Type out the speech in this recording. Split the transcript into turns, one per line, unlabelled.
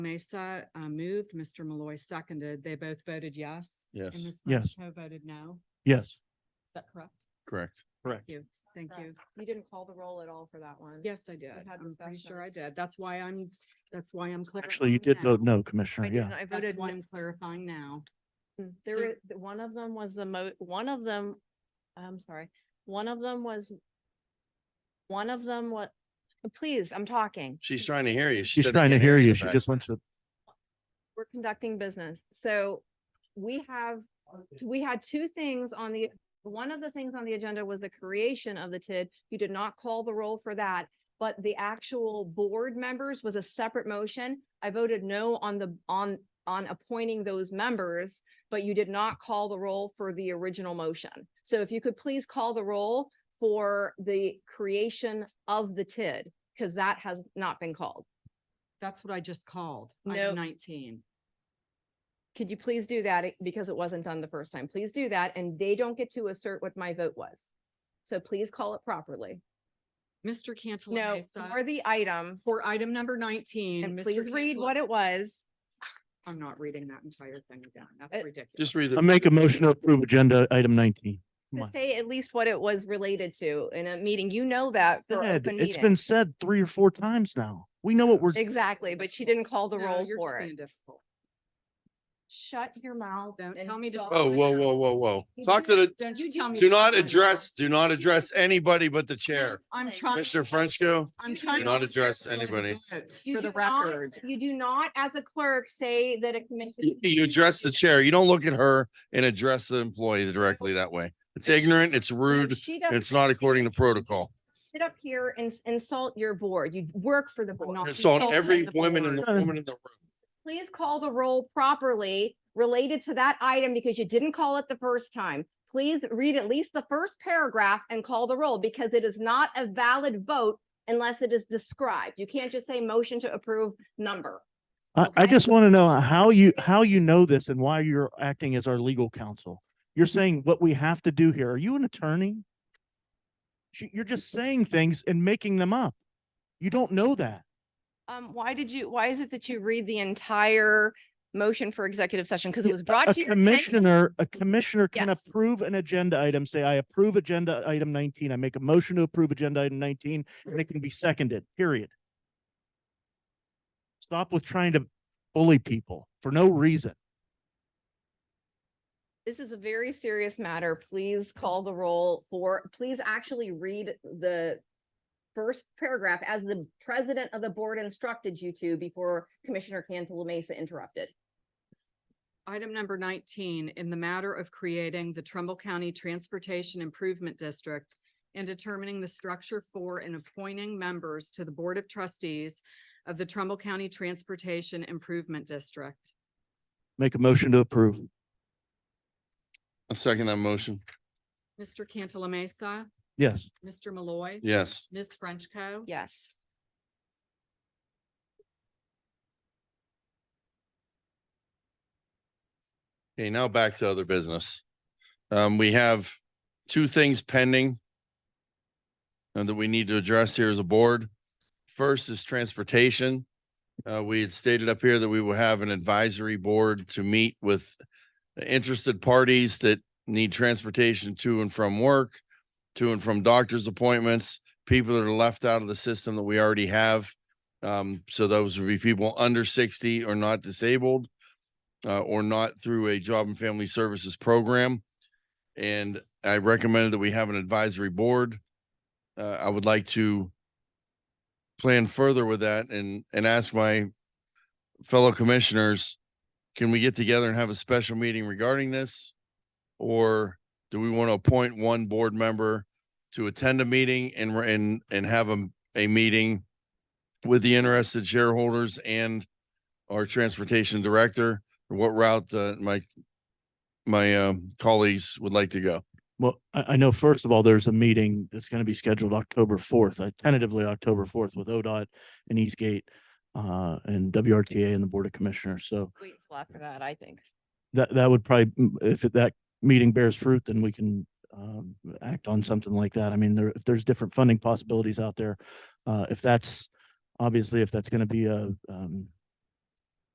Mesa uh, moved, Mr. Malloy seconded. They both voted yes.
Yes,
And Ms.
Yes.
Frenchco voted no.
Yes.
Is that correct?
correct.
Thank you. Thank you.
You didn't call the roll at all for that one.
Yes, I did.
had
I'm pretty sure
discussion.
I did. That's why I'm, that's why I'm clarifying.
Actually, you did
now.
vote no, Commissioner.
I didn't,
uh, Yeah.
I
That's
voted,
why
no.
I'm clarifying now.
Mm,
So-
there were, th- one of them was the mo, one of them, I'm sorry, one of them was, one of them what, please, I'm talking.
She's trying to hear you.
She's
said it
trying to
can't
hear you.
back.
She just wants to.
We're conducting business. So we have, we had two things on the, one of the things on the agenda was the creation of the TID. You did not call the roll for that, but the actual board members was a separate motion. I voted no on the, on, on appointing those members, but you did not call the roll for the original motion. So if you could please call the roll for the creation of the TID, because that has not been called.
That's what I just called.
No.
Item nineteen.
could you please do that It- because it wasn't done the first time? Please do that, and they don't get to assert what my vote was. So please call it properly.
Mr. Cantala
No, for
Mesa,
the item,
for item number nineteen.
and
Mr.
please read
Cantala-
what it was.
I'm not reading that entire thing again. That's
It-
ridiculous.
Just read the.
I make a motion to approve agenda item nineteen. Come
to
on.
Say at least what it was related to in a meeting. You know that for
Said-
open
It's been
meeting.
said three or four times now. We know what we're,
Exactly, but she didn't call the
No,
roll
you're just
for
being
it.
difficult.
Shut your mouth.
Don't
and
tell me to-
stop.
Oh, whoa, whoa, whoa, whoa.
You
Talk to
do-
the,
Don't
You
you
do
tell me.
do
to shut
not
up.
address, do not address anybody but the chair.
I'm
Please.
trying.
Commissioner Frenchco,
I'm trying.
do not
to
address
calculate a
anybody.
vote
You
For the
do not-
record.
You do not, as a clerk, say that a commission.
You- You address the chair. You don't look at her and address the employee directly that way. It's ignorant, it's rude,
She
and
doesn't
it's not according to protocol.
sit up here and s- insult your board. You work for the
But
board.
not
It's on
insulting
every
the
woman in the
board.
woman in the room.
please call the roll properly related to that item because you didn't call it the first time. Please read at least the first paragraph and call the roll because it is not a valid vote unless it is described. You can't just say motion to approve number.
I, I
Okay.
just want to know how you, how you know this and why you're acting as our legal counsel. You're
Mm-hmm.
saying what we have to do here. Are you an attorney? She- You're just saying things and making them up. You don't know that.
Um, why did you, why is it that you read the entire motion for executive session? Because
Yeah,
it was brought
A
to your attention.
commissioner, a commissioner can
Yes.
approve an agenda item, say, I approve agenda item nineteen, I make a motion to approve agenda item nineteen, and it can be seconded, period. Stop with trying to bully people for no reason.
This is a very serious matter. Please call the roll for, please actually read the first paragraph as the president of the board instructed you to before Commissioner Cantala Mesa interrupted.
Item number nineteen, in the matter of creating the Trumbull County Transportation Improvement District and determining the structure for and appointing members to the Board of Trustees of the Trumbull County Transportation Improvement District.
Make a motion to approve.
I second that motion.
Mr. Cantala Mesa,
Yes.
Mr. Malloy.
Yes.
Ms. Frenchco.
Yes.
Okay, now back to other business. Um, we have two things pending and that we need to address here as a board. First is transportation. Uh, we had stated up here that we will have an advisory board to meet with interested parties that need transportation to and from work, to and from doctor's appointments, people that are left out of the system that we already have. Um, so those would be people under sixty or not disabled uh, or not through a job and family services program. And I recommended that we have an advisory board. Uh, I would like to plan further with that and, and ask my fellow commissioners, can we get together and have a special meeting regarding this? Or do we want to appoint one board member to attend a meeting and, re- and, and have a, a meeting with the interested shareholders and our transportation director? or what route uh, my my um, colleagues would like to go.
Well, I, I know, first of all, there's a meeting that's going to be scheduled October fourth, uh, tentatively October fourth with ODOT and Eastgate uh, and WRTA and the Board of Commissioners. So
Wait till after that, I think.
that, that would probably, mm, if it- that meeting bears fruit, then we can um, act on something like that. I mean, there, if there's different funding possibilities out there, uh, if that's, obviously, if that's going to be a, um,